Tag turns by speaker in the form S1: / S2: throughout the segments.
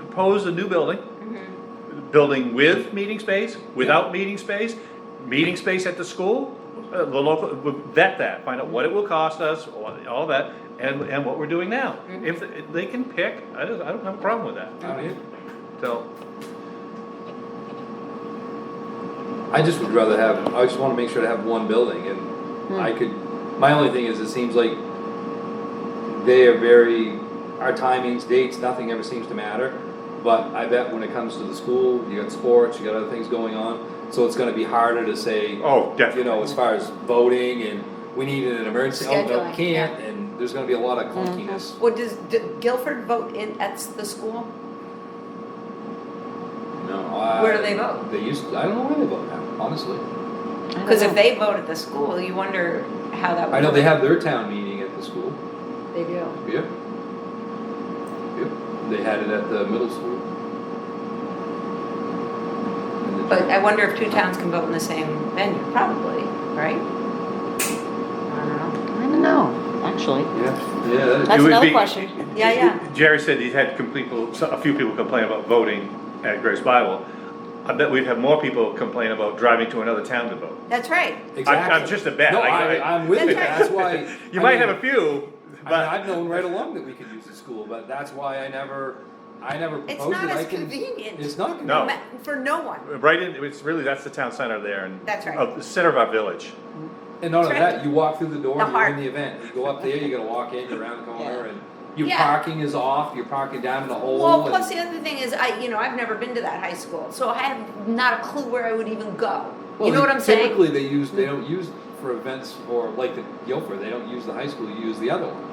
S1: propose a new building.
S2: Mm-hmm.
S1: Building with meeting space, without meeting space, meeting space at the school, uh, the local, we'll vet that, find out what it will cost us, all all that, and, and what we're doing now.
S2: Mm-hmm.
S1: If, if they can pick, I don't, I don't have a problem with that,
S2: Out here.
S1: so.
S2: I just would rather have, I just wanna make sure to have one building and
S3: Hmm.
S2: I could, my only thing is it seems like they are very, our timings, dates, nothing ever seems to matter. But I bet when it comes to the school, you got sports, you got other things going on, so it's gonna be harder to say,
S1: Oh,
S2: you know, as far as voting and we need an emergency, oh, no, we
S4: Scheduling, yeah.
S2: can't, and there's gonna be a lot of clunkiness.
S3: Well, does, did Guilford vote in, at the school?
S2: No, I-
S3: Where do they vote?
S2: They used, I don't know where they vote now, honestly.
S3: Cause if they vote at the school, you wonder how that would.
S2: I know they have their town meeting at the school.
S3: They do.
S2: Yep. Yep, they had it at the middle school. And the-
S3: But I wonder if two towns can vote in the same venue, probably, right? I don't know.
S4: I don't know, actually.
S2: Yeah, yeah, that is-
S4: That's
S1: would
S4: another
S1: be-
S4: question.
S3: Yeah, yeah.
S1: Jerry said he's had com- people, so- a few people complain about voting at Grace Bible. I bet we'd have more people complain about driving to another town to vote.
S3: That's right.
S2: exactly.
S1: I'm just a bet.
S2: No,
S1: I-
S2: I, I'm with you,
S3: That's
S2: that's why.
S1: You
S2: I
S1: might
S2: mean,
S1: have a few,
S2: I mean,
S1: but
S2: I've known right along that we could use the school, but that's why I never, I never
S3: It's
S2: proposed
S3: not
S2: it, I
S3: as
S2: can.
S3: convenient.
S2: It's not
S1: No.
S2: convenient.
S3: Ma- For no one.
S1: right in, it's really, that's the town center there and.
S3: That's right.
S1: Of the center of our village.
S2: And none of
S3: That's right.
S2: that, you walk through the door,
S3: The
S2: you're in
S3: heart.
S2: the event, you go up there, you gotta walk in, you're around the corner, and your
S3: Yeah.
S2: parking is off, you're parking down in the hole.
S3: Well,
S2: and-
S3: plus the other thing is, I, you know, I've never been to that high school, so I have not a clue where I would even go. You
S2: Well,
S3: know what I'm saying?
S2: Typically, they use, they don't use for events for, like the Guilford, they don't use the high school, you use the other one.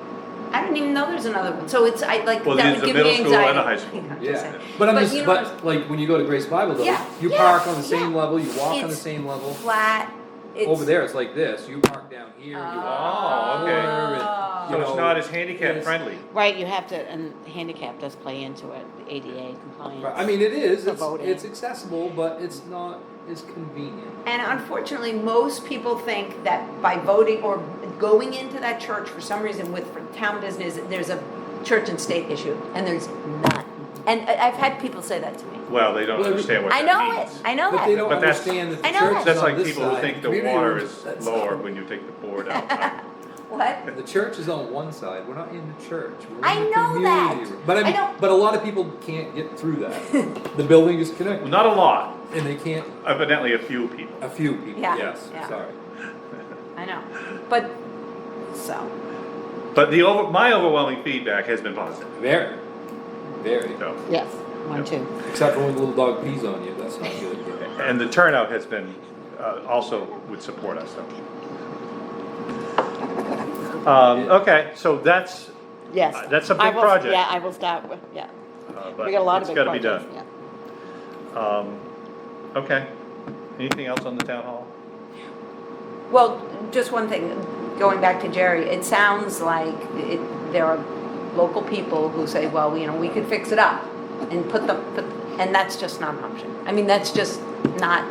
S3: I don't even know there's another one, so it's, I like, that
S1: Well,
S3: would give me
S1: there's a
S3: anxiety.
S1: middle school and a high school.
S3: I'm just
S2: Yeah,
S3: saying.
S2: but I'm
S3: you
S2: just,
S3: know what
S2: but like when you go to Grace Bible though,
S3: Yeah,
S2: you
S3: yeah,
S2: park on the same
S3: yeah.
S2: level, you walk on the
S3: It's
S2: same level.
S3: I'm- Flat, it's.
S2: Over there, it's like this, you park down here, you walk
S1: Oh,
S2: over
S1: okay.
S2: and,
S1: So
S2: you
S1: it's
S2: know,
S1: not as handicap
S2: it's-
S1: friendly.
S4: Right, you have to, and handicap does play into it, the ADA compliance.
S2: Right, I mean, it is,
S4: The
S2: it's,
S4: voting.
S2: it's accessible, but it's not as convenient.
S3: And unfortunately, most people think that by voting or going into that church for some reason with for town business, there's a church and state issue, and there's not. And I- I've had people say that to me.
S1: Well, they don't
S2: Well,
S1: understand what
S3: I
S1: that
S3: know
S1: means.
S3: it, I know
S2: But they
S3: that.
S2: don't
S1: But that's-
S2: understand that the
S3: I know
S2: church
S3: that.
S2: is
S1: That's
S2: on
S1: like
S2: this
S1: people who
S2: side,
S1: think
S2: the
S1: the
S2: community
S1: water
S2: room's
S1: is
S2: that side.
S1: lower when you take the board out.
S3: What?
S2: The church is on one side. We're not in the church. We're in
S3: I
S2: the
S3: know that.
S2: community room. But I
S3: I
S2: mean,
S3: don't-
S2: but a lot of people can't get through that. the building is
S1: Well,
S2: connected,
S1: Not a lot,
S2: and they can't.
S1: evidently a few people.
S2: A few people.
S3: Yeah,
S2: Yes.
S3: yeah.
S2: Sorry.
S3: I know, but, so,
S1: But the over, my overwhelming feedback has been positive,
S2: Very, very.
S1: so.
S4: Yes, one, two.
S2: Except for when the little dog pees on you. That's not good.
S1: And the turnout has been, uh, also would support us, so. Um, okay, so that's,
S4: Yes.
S1: Uh, that's a
S4: I
S1: big
S4: will-
S1: project.
S4: Yeah, I will start with, yeah.
S1: uh, but
S4: We got a lot of
S1: it's
S4: big
S1: gotta be
S4: projects.
S1: done. Um, okay, anything else on the town hall?
S3: well, just one thing, going back to Jerry, it sounds like it, there are local people who say, well, you know, we could fix it up and put them, put, and that's just not an option. I mean, that's just not,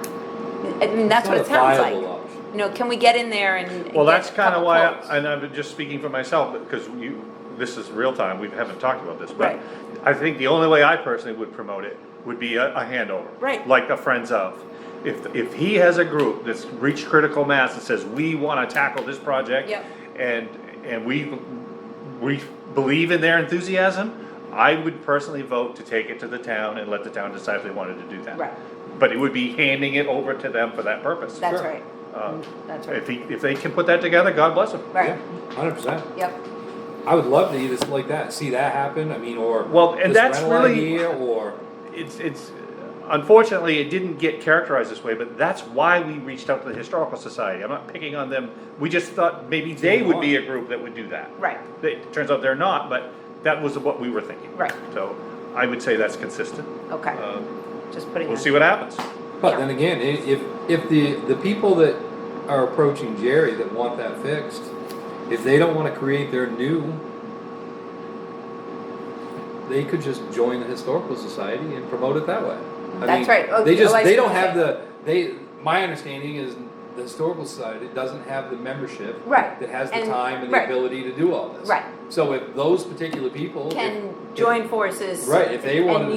S3: I mean, that's what it
S2: It's not a
S3: sounds like.
S2: viable option.
S3: You know, can we get in there and?
S1: Well,
S3: get
S1: that's
S3: a
S1: kind of
S3: couple
S1: why,
S3: quotes?
S1: I- and I'm just speaking for myself, because you, this is real time, we haven't talked about this, but
S3: Right.
S1: I think the only way I personally would promote it would be a, a handover.
S3: Right.
S1: Like a Friends of. If, if he has a group that's reached critical mass and says, we want to tackle this project.
S3: Yep.
S1: And, and we, we believe in their enthusiasm, I would personally vote to take it to the town and let the town decide if they wanted to do that.
S3: Right.
S1: But it would be handing it over to them for that purpose.
S3: That's
S2: Sure.
S3: right,
S1: Uh,
S3: that's
S1: If
S3: right,
S1: he, if they can put that together, God bless them.
S3: right,
S2: Hundred percent.
S3: yep,
S2: I would love to either like that, see that happen. I mean, or
S1: Well, and
S2: this
S1: that's
S2: rental
S1: really-
S2: idea, or
S1: It's, it's, unfortunately, it didn't get characterized this way, but that's why we reached out to the Historical Society. I'm not picking on them. We just thought maybe they would be a group that would do that.
S3: right,
S1: It turns out they're not, but that was what we were thinking.
S3: Right.
S1: So I would say that's consistent.
S3: okay,
S1: Uh,
S3: just putting.
S1: We'll
S3: that-
S1: see what happens.
S2: But then again, i- if, if the, the people that are approaching Jerry that want that fixed, if they don't wanna create their new, they could just join the historical society and promote it that way. I
S3: That's
S2: mean,
S3: right. Oh,
S2: They just,
S3: oh, I
S2: they
S3: see
S2: don't
S3: what you're
S2: have the, they, my understanding is the historical society doesn't have the membership.
S3: Right.
S2: That has the
S3: And-
S2: time and the
S3: right.
S2: ability to do all this.
S3: Right.
S2: So if those particular people. if-
S3: Can join forces.
S2: Right, if they wanted
S3: and
S2: to